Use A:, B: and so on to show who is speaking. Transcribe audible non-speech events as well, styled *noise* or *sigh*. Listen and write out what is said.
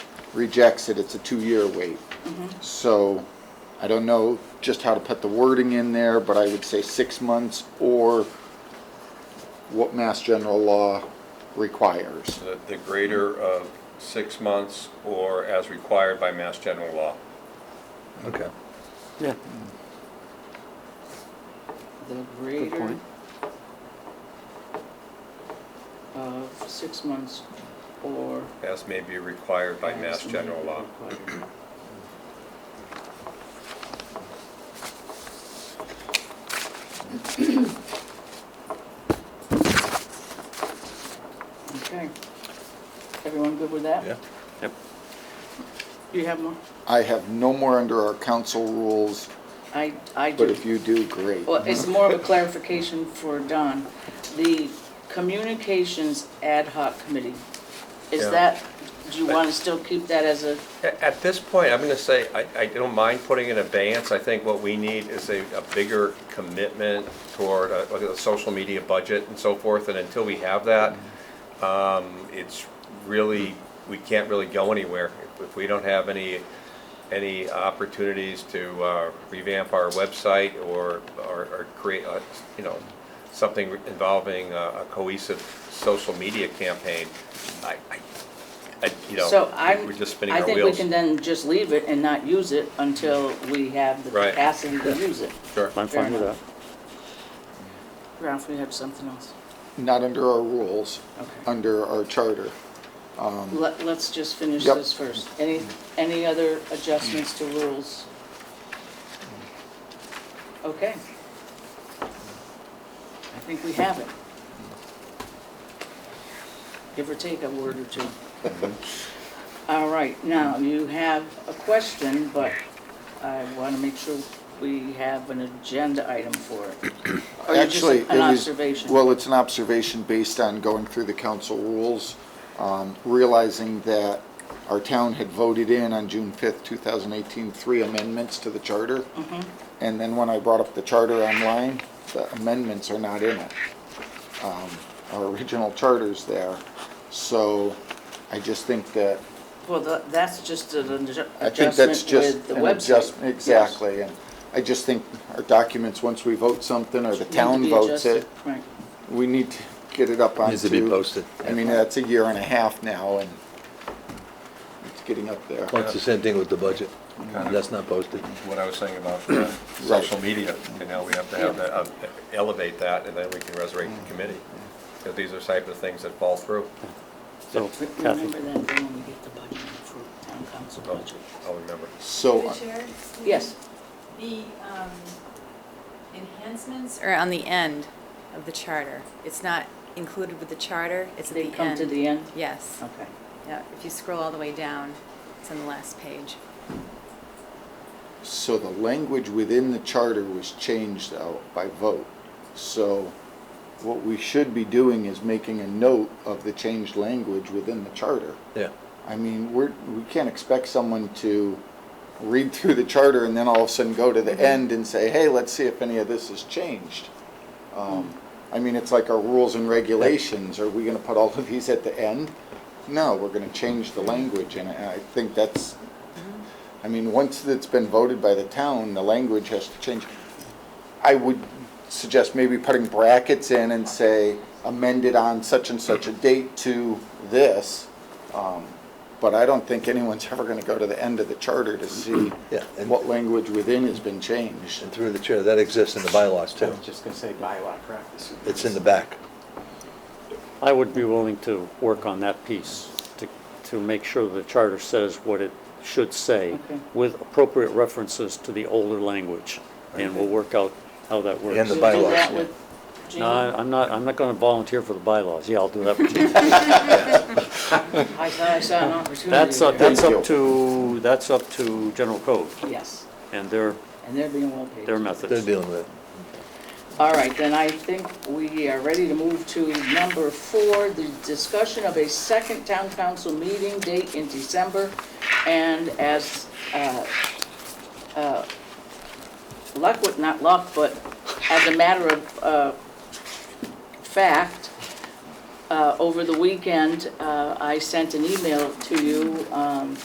A: rejects it, it's a two-year wait.
B: Mm-hmm.
A: So I don't know just how to put the wording in there, but I would say six months or what Mass General Law requires.
C: The- the greater of six months or as required by Mass General Law.
D: Okay.
E: Yeah.
B: The greater
E: point.
B: of uh, six months or.
C: As may be required by Mass General Law.
B: Okay. Everyone good with that?
D: Yeah.
E: Yep.
B: Do you have more?
A: I have no more under our council rules,
B: I, I do.
A: but if you do, great.
B: Well, it's more of a clarification for Don. The Communications Ad Hoc Committee, is
C: Yeah.
B: that, do you want to still keep that as a,
C: A- At this point, I'm going to say, I, I don't mind putting in abeyance. I think what we need is a, a bigger commitment toward a, like a social media budget and so forth. And until we have that, um, it's really, we can't really go anywhere. If- If we don't have any, any opportunities to uh, revamp our website or, or, or create, a, you know, something involving a a cohesive social media campaign, I, I, I- you know,
B: so I'm,
C: we're just spinning
B: I
C: our
B: think we
C: wheels.
B: can then just leave it and not use it until we have the
C: Right.
B: capacity to use it.
C: Sure.
E: I'm fine with that.
B: Ralph, we have something else.
A: Not under our rules,
B: Okay.
A: under our charter.
E: *laughs*
B: Let, let's just finish
A: Yep.
B: this first. Any, any other adjustments to rules? Okay. I think we have it. Give or take a word or two. All right, now, you have a question, but I want to make sure we have an agenda item for
A: *clears throat*
B: it. Or you Oh, just-
A: Actually,
B: An
A: it was-
B: observation.
A: Well, it's an observation based on going through the council rules, um, realizing that our town had voted in on June 5th, 2018, three amendments to the charter.
B: Mm-hmm.
A: And then when I brought up the charter online, the amendments are not in it. Um, Our original charter's there. So I just think that,
B: Well, tha- that's just an adju-
A: I think that's
B: adjustment
A: just
B: with the
A: an
B: website.
A: adjustment. Exactly. And I just think our documents, once we vote something or the
B: Need to
A: town
B: be
A: votes
B: adjusted.
A: it,
B: Right.
A: we need to get it up on.
D: Needs to be posted.
A: I mean, that's a year and a half now, and it's getting up there.
D: Well, it's the same thing with the budget.
C: Yeah.
D: That's not posted.
C: What I was saying about uh, social media, you know, we have to have that, uh, elevate that, and then we can resurrect the committee. Because these are type of things that fall through.
E: So Kathy,
B: Remember that day when we get the budget for town council
C: I'll
B: budget.
C: I'll remember.
A: So, uh,
F: Through the chair?
B: Yes.
F: The um, enhancements are on the end of the charter. It's not included with the charter, it's at the
B: They
F: end.
B: come to the end? Oh.
F: Yes.
B: Okay.
F: Yeah, if you scroll all the way down, it's on the last page.
A: so the language within the charter was changed though by vote. So what we should be doing is making a note of the changed language within the charter.
D: Yeah.
A: I mean, we're, we can't expect someone to read *laughs* through the charter and then all of a sudden go to the end and say, hey, let's see if any of this has changed. Um, I mean, it's like our rules and regulations, are we gonna put all of these at the end? No, we're gonna change the language, and I I think that's, I mean, once it's been voted by the town, the language has to change. I would suggest maybe putting brackets in and say amended on such and such a date to this. um, But I don't think anyone's ever going to go to the end of the charter to see
D: Yeah, and-
A: what language within has been changed.
D: And through the chair, that exists in the bylaws
G: I
D: too.
G: was just gonna say bylaw practice.
D: It's in the back.
E: I would be willing to work on that piece, to, to make sure the charter says what it should say
B: Okay.
E: with appropriate references to the older language, and we'll work out how that works.
D: And the
B: We'll do
D: bylaws,
B: that
D: yeah.
B: with Jean.
E: No, I- I'm not, I'm not going to volunteer for the bylaws. Yeah, I'll do that with you.
B: I thought I saw an opportunity
E: That's, up-
B: there.
E: that's
A: Thank
E: up to, that's up to general code
B: Yes,
E: and their,
B: and they're being well paid.
E: their
D: They're
E: methods.
D: dealing with it.
B: All right, then I think we are ready to move to number four, the discussion of a second town council meeting date in December. And as, uh, uh, luck would, not luck, but as a matter of uh, fact, uh, over the weekend, uh, I sent an email to you um,